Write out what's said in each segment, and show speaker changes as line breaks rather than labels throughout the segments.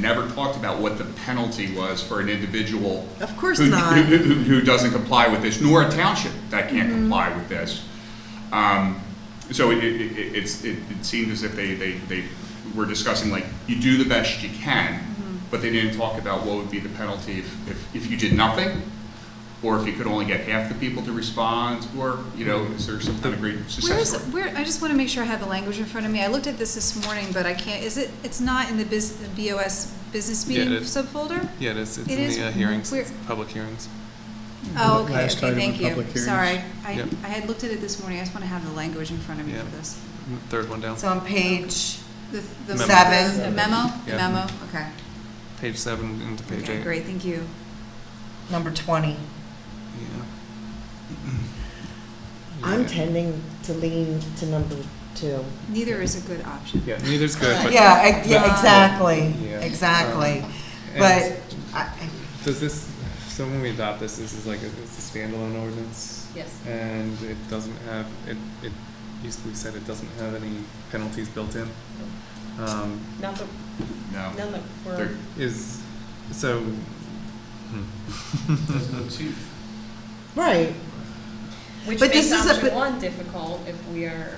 never talked about what the penalty was for an individual.
Of course
who-
not.
Who, who- who doesn't comply with this, nor a township that can't
Mm-hmm.
comply with this. Um, So it, it, it- it's, it it seemed as if they, they, they were discussing like, you do the best you can,
Mm-hmm.
but they didn't talk about what would be the penalty if, if, if you did nothing, or if you could only get half the people to respond, or, you know, is there some kind of great
Where
success
is,
story?
where, I just want to make sure I have the language in front of me. I looked at this this morning, but I can't, is it, it's not in the bus, BOS business
Yeah,
meeting
it is.
subfolder?
Yeah, it is, it's
It
in
is
the uh, hearings,
where-
it's public hearings.
Oh, okay,
Last
okay,
item in
thank you.
public hearings.
Sorry. I,
Yep.
I had looked at it this morning. I just want to have the language in front of me
Yeah.
for this.
Third one down,
It's on page,
The- the-
Memo.
Seven.
the Memo, the
Yeah.
memo, okay.
page seven into page
Okay,
eight.
great, thank you.
number 20.
Yeah.
I'm
Yeah.
tending to lean to number two.
Neither is a good option.
Yeah, neither's good, but.
Yeah, ex- yeah,
but-
exactly,
Yeah.
exactly.
and
But, I-
Does this, so when we adopt this, this is like, a- it's a standalone ordinance?
Yes.
And it doesn't have, it, it used to be said it doesn't have any penalties built in. Um,
Now that,
No.
now that
They're-
is, so,
Right,
Which
But this
makes
is a- but-
option one difficult if we are,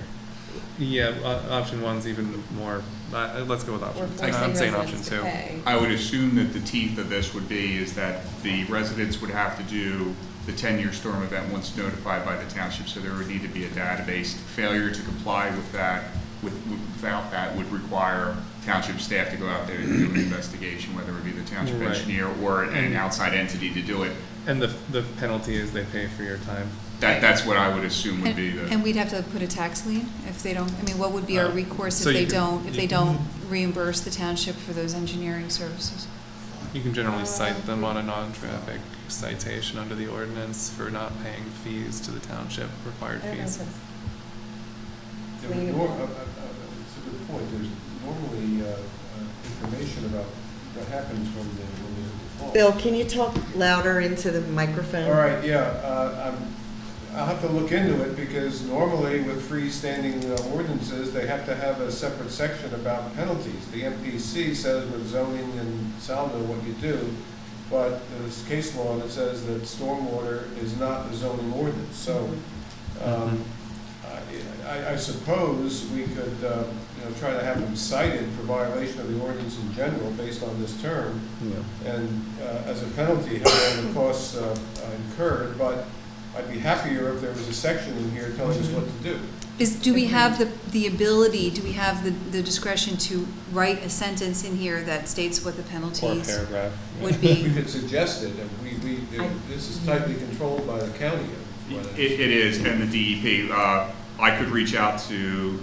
yeah, o- option one's even more, uh, let's go with
we're
option. I'm
forcing
saying option
residents to
two.
pay.
I would assume that the teeth of this would be is that the residents would have to do the ten-year storm event once notified by the township, so there would need to be a database. Failure to comply with that, with, without that would require township staff to go out there and do an investigation, whether it be the township
Right.
engineer or an outside entity to do it.
And the, the penalty is they pay for your time.
That, that's what I would assume would
And
be
and
the,
we'd have to put a tax lien if they don't, I mean, what would be our
Uh,
recourse
so
if
you
they
could-
don't, if they
you could-
don't reimburse the township for those engineering services?
You can generally cite them on a non-traffic citation under the ordinance for not paying fees to the township, required
I don't know if
fees.
it's-
There were nor- uh, uh, uh, It's a good point, there's normally uh, uh, information about what happens when the, when there's a default.
Bill, can you talk louder into the microphone?
All right, yeah, uh, I'm, I'll have to look into it, because normally with freestanding uh, ordinances, they have to have a separate section about penalties. The MPC says with zoning and saldo what you do, but there's case law that says that stormwater is not a zoning ordinance, so, um, I, I suppose we could, uh, you know, try to have them cited for violation of the ordinance in general based on this term, and uh, as a penalty, have all the costs uh, incurred, but I'd be happier if there was a section in here telling us what to do.
Is, do we have the, the ability, do we have the the discretion to write a sentence in here that states what the
Or a
penalties
paragraph.
would
We
be?
could suggest it, and we, we, this is tightly controlled by the county.
it, it is, and the DEP, uh, I could reach out to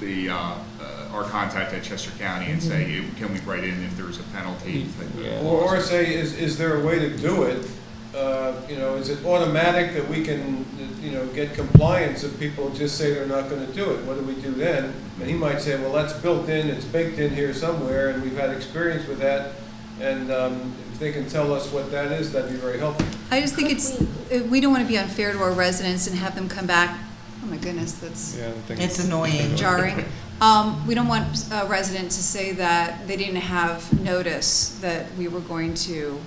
the, uh, uh, our contact at Chester County and say, can we write in if there's a penalty? type of-
Yeah.
Or, or say, is, is there a way to do it? Uh, You know, is it automatic that we can, you know, get compliance if people just say they're not gonna do it? What do we do then? And he might say, well, that's built in, it's baked in here somewhere, and we've had experience with that. And um, if they can tell us what that is, that'd be very helpful.
I just think it's, uh, we don't want to be unfair to our residents and have them come back, oh my goodness, that's
Yeah, I think
It's annoying.
jarring. Um, we don't want a resident to say that they didn't have notice that we were going to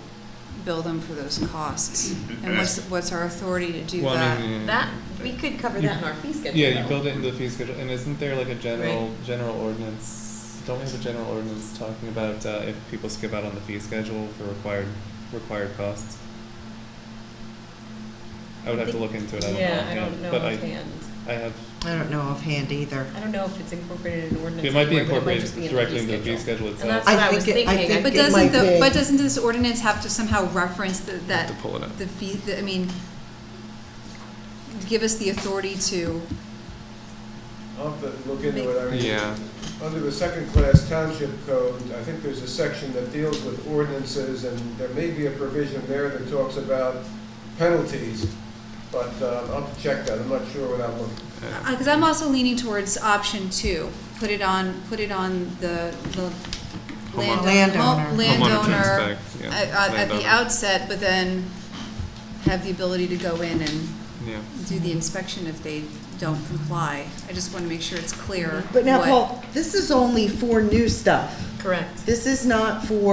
bill them for those costs. And what's, what's our authority to do
Well, I
that?
mean, yeah, yeah.
That, we could cover that in our fee schedule.
Yeah, you
though.
build it into the fee schedule, and isn't there like a general, general ordinance, don't we have a general ordinance talking about, uh, if people skip out on the fee schedule for required, required costs? I would have to look into it, I don't know.
Yeah, I don't
offhand,
know
But I,
offhand.
I have,
I don't know offhand either.
I don't know if it's incorporated in ordinance.
it might be
anywhere, but
incorporated
it might just be in
directly into the fee schedule itself.
And that's
I
what I
think
was
it- I
thinking.
think
But
it might
doesn't the,
be.
but doesn't this ordinance have to somehow reference the-
Have
that,
to pull it up.
the fee, the- I mean, give us the authority to,
I'll have to look into it. I mean,
Yeah.
Under the second-class township code, I think there's a section that deals with ordinances, and there may be a provision there that talks about penalties, but uh, I'll have to check that, I'm not sure without looking.
because uh, I'm also leaning towards option two. Put it on, put it on the, the land-
Landowner.
ho-
Homeowner to
Landowner uh,
inspect, yeah,
uh, at the
landowner.
outset, but then have the ability to go in and
Yeah.
do the inspection if they don't comply. I just want to make sure it's clear.
But now,
what-
Paul, this is only for new stuff.
Correct.
This is not for